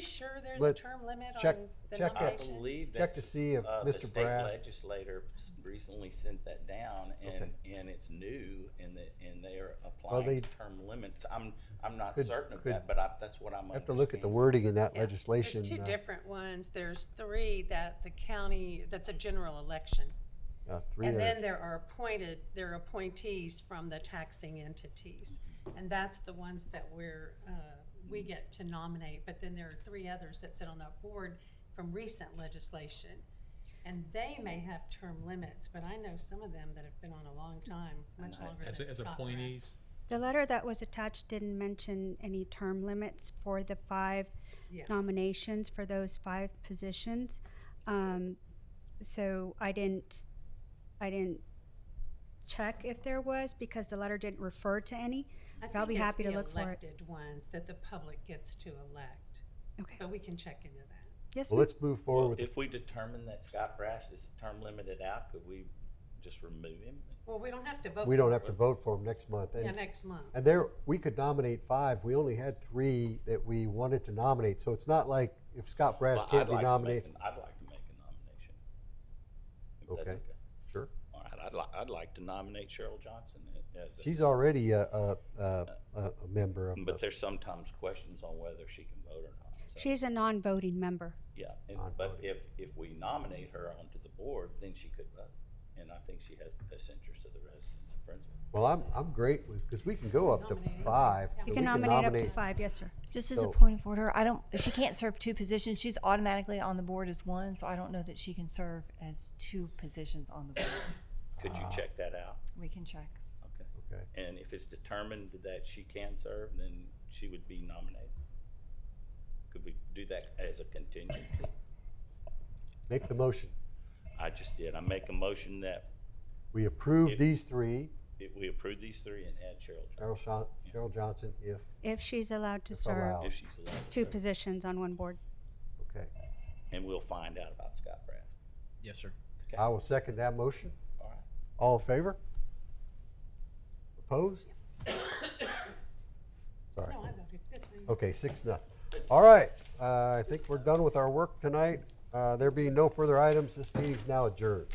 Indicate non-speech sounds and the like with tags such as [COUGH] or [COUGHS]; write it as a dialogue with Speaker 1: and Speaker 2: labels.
Speaker 1: sure there's a
Speaker 2: Let-
Speaker 1: term limit
Speaker 2: check-
Speaker 1: on the
Speaker 2: check it.
Speaker 3: I
Speaker 1: nominations?
Speaker 3: believe that.
Speaker 2: Check to see if
Speaker 3: uh,
Speaker 2: Mr.
Speaker 3: The state
Speaker 2: Brass-
Speaker 3: legislator s- recently sent that down and, and it's new and the, and they are
Speaker 2: they-
Speaker 3: applying term limits. I'm, I'm not
Speaker 2: Could-
Speaker 3: certain of
Speaker 2: could-
Speaker 3: that, but I, that's what I'm
Speaker 2: I have to look at the
Speaker 3: understanding.
Speaker 2: wording in that
Speaker 1: Yeah.
Speaker 2: legislation.
Speaker 1: There's two
Speaker 2: uh,
Speaker 1: different ones. There's three that the county, that's a general election.
Speaker 2: uh, three
Speaker 1: And
Speaker 2: that are-
Speaker 1: then there are appointed, there are appointees from the taxing entities. And that's the ones that we're, uh, we get to nominate. But then there are three others that sit on that board from recent legislation. And they may have term limits, but I know some of them that have been on a long time, much
Speaker 3: And I-
Speaker 1: longer
Speaker 4: as,
Speaker 1: than
Speaker 4: as
Speaker 1: Scott Rath.
Speaker 4: appointees.
Speaker 5: The letter that was attached didn't mention any term limits for the five
Speaker 1: Yeah.
Speaker 5: nominations for those five positions. Um, so I didn't, I didn't check if there was because the letter didn't refer to any.
Speaker 1: I think
Speaker 5: I'll be
Speaker 1: it's
Speaker 5: happy to
Speaker 1: the
Speaker 5: look for it.
Speaker 1: Elected ones that the public gets to elect,
Speaker 5: Okay.
Speaker 1: but we can check into that.
Speaker 5: Oh, Yes,
Speaker 2: Well,
Speaker 5: ma'am.
Speaker 2: let's move
Speaker 3: Well,
Speaker 2: forward. with-
Speaker 3: If we determine that Scott Brass is term limited out, could we just remove him?
Speaker 1: Well, we don't have to vote.
Speaker 2: We don't
Speaker 1: for
Speaker 2: have to vote for them next month.
Speaker 1: it. Yeah,
Speaker 2: And
Speaker 1: next month.
Speaker 2: And there, we could nominate five. We only had three that we wanted to nominate. So it's not like if Scott Brass
Speaker 3: Well, I'd
Speaker 2: can't be
Speaker 3: like to make
Speaker 2: nominated.
Speaker 3: an- I'd like to make a nomination. if that's
Speaker 2: Okay. Sure.
Speaker 3: All right, I'd like, I'd like to nominate Cheryl Johnson as a.
Speaker 2: She's already a, a, a, a a member of
Speaker 3: But
Speaker 2: the,
Speaker 3: there's sometimes questions on whether she can vote or not. so-
Speaker 5: She's a non-voting member.
Speaker 3: Yeah, and-
Speaker 2: I'd
Speaker 3: but
Speaker 2: vote.
Speaker 3: if, if we nominate her onto the board, then she could vote. And I think she has the best interest of the residents of Friendswood.
Speaker 2: well, I'm, I'm great with, because we can go up to
Speaker 1: Nominate.
Speaker 2: five.
Speaker 1: You
Speaker 2: so
Speaker 5: You
Speaker 2: we
Speaker 5: can nominate up to five, yes, sir.
Speaker 6: Just as a
Speaker 2: So-
Speaker 6: point of order, I don't, she can't serve two positions. She's automatically on the board as one, so I don't know that she can serve as two positions on the board.
Speaker 3: Could you check that out?
Speaker 6: We can check.
Speaker 3: Okay.
Speaker 2: Okay.
Speaker 3: And if it's determined that she can serve, then she would be nominated? Could we do that as a contingency?
Speaker 2: Make the motion.
Speaker 3: I just did. I make a motion that
Speaker 2: We approve
Speaker 3: If-
Speaker 2: these three,
Speaker 3: if we approve these three and add Cheryl
Speaker 2: Cheryl
Speaker 3: Johnson,
Speaker 2: Shon- Cheryl Johnson, if,
Speaker 5: If she's allowed to
Speaker 2: If
Speaker 5: serve
Speaker 2: allowed.
Speaker 3: if she's elected.
Speaker 5: two positions on one board.
Speaker 2: okay.
Speaker 3: And we'll find out about Scott Brass.
Speaker 4: Yes, sir.
Speaker 2: I will second that motion.
Speaker 3: All right.
Speaker 2: All in favor?
Speaker 1: [COUGHS]
Speaker 2: Opposed? Sorry.
Speaker 1: No, I voted this one.
Speaker 2: Okay, six, nothing. All right, uh, I think we're done with our work tonight. Uh, There being no further items, this meeting's now adjourned.